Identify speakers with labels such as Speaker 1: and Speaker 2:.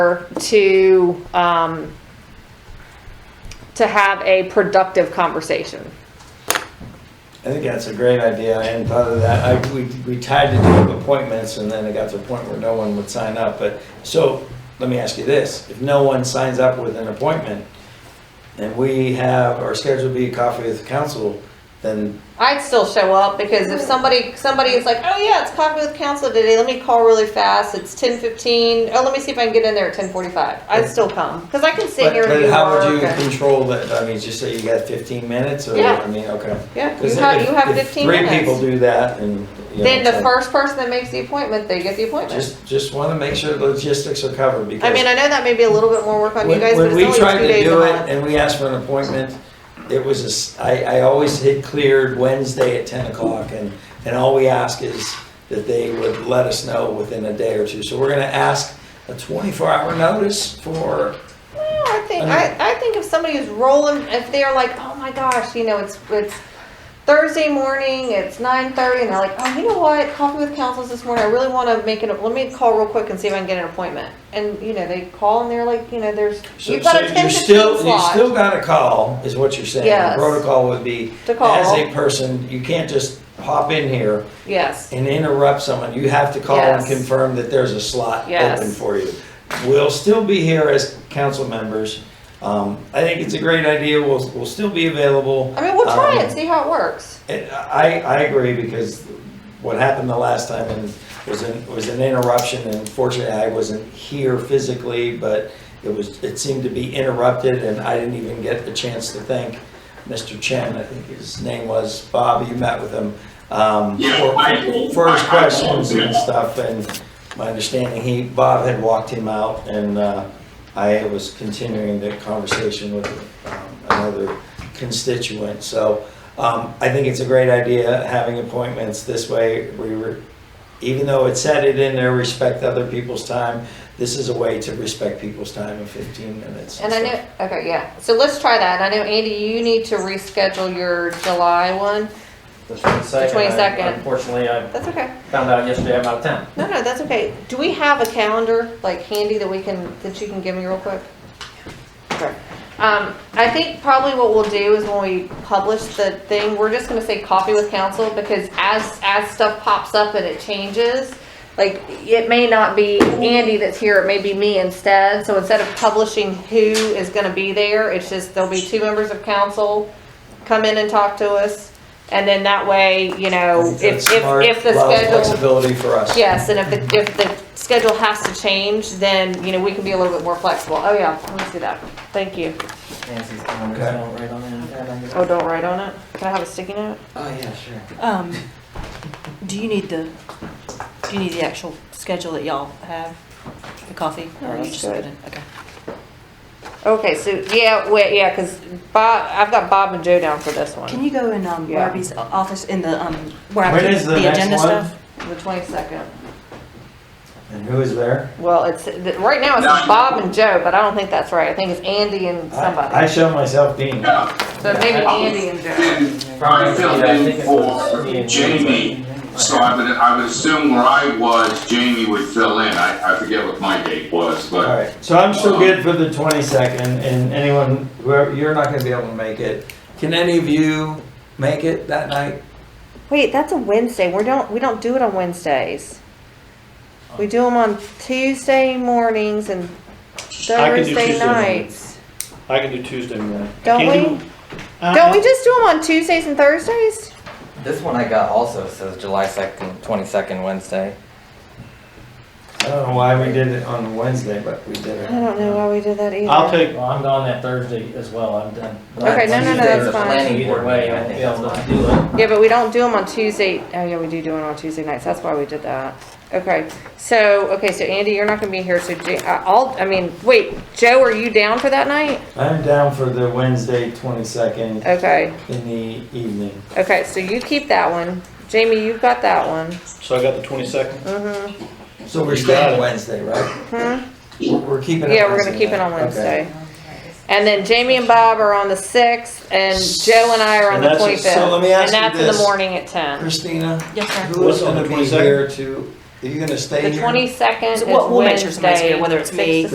Speaker 1: to, um, to have a productive conversation.
Speaker 2: I think that's a great idea, I hadn't thought of that. I, we, we tried to do appointments, and then it got to a point where no one would sign up, but, so, let me ask you this, if no one signs up with an appointment, and we have, our scheduled to be a coffee with council, then,
Speaker 3: I'd still show up because if somebody somebody is like, oh yeah, it's coffee with council today. Let me call really fast. It's ten fifteen. Oh, let me see if I can get in there at ten forty five. I'd still come because I can sit
Speaker 2: but,
Speaker 3: here and
Speaker 2: but
Speaker 3: do
Speaker 2: how would
Speaker 3: work
Speaker 2: you
Speaker 3: and-
Speaker 2: control that, I mean, just say you got fifteen minutes, or,
Speaker 3: Yeah.
Speaker 2: I mean, okay.
Speaker 3: yeah,
Speaker 2: 'Cause
Speaker 3: you have
Speaker 2: if-
Speaker 3: you have
Speaker 2: if
Speaker 3: fifteen
Speaker 2: Three
Speaker 3: minutes.
Speaker 2: people do that, and, you know.
Speaker 3: then the
Speaker 2: it's like,
Speaker 3: first person that makes the appointment, they get the appointment.
Speaker 2: Just, just wanna make sure logistics are covered, because.
Speaker 3: I mean, I know that may be a little bit more work on you
Speaker 2: When-
Speaker 3: guys, but it's only
Speaker 2: When we
Speaker 3: two
Speaker 2: tried to
Speaker 3: days a
Speaker 2: do it
Speaker 3: month.
Speaker 2: and we asked for an appointment, it was, a s- I, I always hit cleared Wednesday at 10 o'clock and, and all we ask is that they would let us know within a day or two. So we're gonna ask a 24-hour notice for,
Speaker 3: Well, I think
Speaker 2: I mean-
Speaker 3: I, I think if somebody is rolling, if they're like, oh my gosh, you know, it's it's Thursday morning, it's nine thirty, and they're like, oh, you know what, coffee with councils this morning. I really want to make it. Let me call real quick and see if I can get an appointment. And you know, they call and they're like, you know, there's
Speaker 2: so
Speaker 3: you've got
Speaker 2: so
Speaker 3: a ten
Speaker 2: you
Speaker 3: fifteen
Speaker 2: still, you
Speaker 3: slot.
Speaker 2: still gotta call, is what you're saying.
Speaker 3: Yes.
Speaker 2: The Protocol would be,
Speaker 3: To call.
Speaker 2: as a person, you can't just hop in here
Speaker 3: yes.
Speaker 2: and interrupt someone, you have to call and
Speaker 3: Yes.
Speaker 2: confirm that there's a slot
Speaker 3: Yes.
Speaker 2: open for you. We'll still be here as council members. Um, I think it's a great idea. We'll, we'll still be available.
Speaker 3: I mean, we'll try
Speaker 2: Um,
Speaker 3: it, see how it works.
Speaker 2: And I, I agree because what happened the last time and was an, was an interruption and fortunately I wasn't here physically, but it was, it seemed to be interrupted and I didn't even get the chance to thank Mr. Chen, I think his name was, Bob, you met with him, um, for, for his questions and stuff and my understanding, he, Bob had walked him out and, uh, I was continuing the conversation with um, another constituent, so, um, I think it's a great idea having appointments this way. We were, even though it said it in there, respect other people's time. This is a way to respect people's time in 15 minutes.
Speaker 3: And I know, okay, yeah. So let's try that. And I know Andy, you need to reschedule your July one.
Speaker 4: The twenty-second.
Speaker 3: 22nd.
Speaker 4: Unfortunately, I
Speaker 3: That's okay.
Speaker 4: found out yesterday I'm out of town.
Speaker 3: No, no, that's okay. Do we have a calendar, like handy, that we can, that you can give me real quick? Okay. Um, I think probably what we'll do is when we publish the thing, we're just gonna say coffee with council, because as, as stuff pops up and it changes, like, it may not be Andy that's here, it may be me instead, so instead of publishing who is gonna be there, it's just, there'll be two members of council come in and talk to us, and then that way, you know,
Speaker 2: I
Speaker 3: if,
Speaker 2: think
Speaker 3: oh,
Speaker 2: that's smart,
Speaker 3: if, if the
Speaker 2: allows
Speaker 3: schedule.
Speaker 2: Flexibility for us.
Speaker 3: Yes, and if the, if the schedule has to change, then, you know, we can be a little bit more flexible. Oh, yeah, let's do that. Thank you.
Speaker 4: Nancy's calendar,
Speaker 2: Okay.
Speaker 4: don't write on it. Yeah, I guess-
Speaker 3: Oh, don't write on it? Can I have a sticky note?
Speaker 4: Oh, yeah, sure.
Speaker 5: Um, do you need the, do you need the actual schedule that y'all have, the coffee?
Speaker 3: No,
Speaker 5: Or are you
Speaker 3: that's
Speaker 5: just
Speaker 3: good.
Speaker 5: gonna- Okay.
Speaker 3: Okay, so, yeah, wait, yeah, because Bob, I've got Bob and Joe down for this
Speaker 5: Can
Speaker 3: one,
Speaker 5: you go in, um,
Speaker 3: Yeah.
Speaker 5: Barbie's o- office in the, um, where I
Speaker 2: When
Speaker 5: keep
Speaker 2: is the
Speaker 5: the
Speaker 2: next
Speaker 5: agenda
Speaker 2: one?
Speaker 5: stuff?
Speaker 3: the twenty-second.
Speaker 2: And who is there?
Speaker 3: Well, it's, th- right now it's Bob and Joe, but I don't think that's right. I think it's Andy and
Speaker 2: I I
Speaker 3: somebody.
Speaker 2: show myself being.
Speaker 3: So maybe Andy and Joe.
Speaker 4: Probably,
Speaker 6: I filled
Speaker 4: yeah, I think
Speaker 6: in
Speaker 4: it was me
Speaker 6: for
Speaker 4: and you,
Speaker 6: Jamie,
Speaker 4: but-
Speaker 6: so I would, I would assume where I was, Jamie would fill in. I, I forget what my date was,
Speaker 2: All
Speaker 6: but
Speaker 2: right, so I'm still good for the 22nd and anyone, whoever, you're not gonna be able to make it. Can any of you make it that night?
Speaker 3: Wait, that's a Wednesday. We don't we don't do it on Wednesdays. We do them on Tuesday mornings and
Speaker 7: I can do
Speaker 3: Thursday
Speaker 7: Tuesday morning.
Speaker 3: nights.
Speaker 7: I can do Tuesday morning. I
Speaker 3: Don't
Speaker 7: can't
Speaker 3: we?
Speaker 7: do- Uh,
Speaker 3: Don't we just do them on Tuesdays and Thursdays?
Speaker 8: This one I got also says July 2nd, 22nd, Wednesday.
Speaker 2: I don't know why we did it on Wednesday, but we did
Speaker 3: I
Speaker 2: it.
Speaker 3: don't know why we did that either.
Speaker 7: I'll take,
Speaker 4: Well, I'm gone that Thursday as well, I'm done.
Speaker 3: Okay, no, no, no, that's
Speaker 8: Wednesday's the
Speaker 3: fine.
Speaker 8: planning
Speaker 4: Either
Speaker 8: board
Speaker 4: way,
Speaker 8: meeting,
Speaker 4: I
Speaker 8: I
Speaker 4: won't
Speaker 8: think
Speaker 4: be
Speaker 8: that's
Speaker 4: able to
Speaker 8: fine.
Speaker 4: do it.
Speaker 3: Yeah, but we don't do them on Tuesday. Oh yeah, we do do it on Tuesday nights. That's why we did that. Okay, so okay, so Andy, you're not going to be here. So Ja- I- I'll. I mean, wait, Joe, are you down for that night?
Speaker 2: I'm down for the Wednesday 22nd
Speaker 3: Okay,
Speaker 2: in the evening.
Speaker 3: okay. So you keep that one, Jamie. You've got that one.
Speaker 7: so I got the twenty-second.
Speaker 2: So we're
Speaker 7: You got
Speaker 2: staying
Speaker 7: it.
Speaker 2: Wednesday, right? We're we're keeping it
Speaker 3: Mm-hmm. Yeah, we're gonna keep it on
Speaker 2: night. Okay.
Speaker 3: Wednesday. And then Jamie and Bob are on the sixth, and Joe and I are on
Speaker 2: And
Speaker 3: the
Speaker 2: that's-
Speaker 3: twenty-fifth.
Speaker 2: so let me ask you
Speaker 3: And that's in the
Speaker 2: this.
Speaker 3: morning at ten.
Speaker 2: Christina,
Speaker 5: Yes, sir.
Speaker 2: who is
Speaker 7: What's on
Speaker 2: gonna
Speaker 7: the
Speaker 2: be
Speaker 7: 22nd?
Speaker 2: here to, are you gonna stay
Speaker 3: The
Speaker 2: here?
Speaker 3: twenty-second is
Speaker 5: So we'll- we'll make sure somebody's here,
Speaker 3: Wednesday,
Speaker 5: whether it's
Speaker 3: six
Speaker 5: me,
Speaker 3: to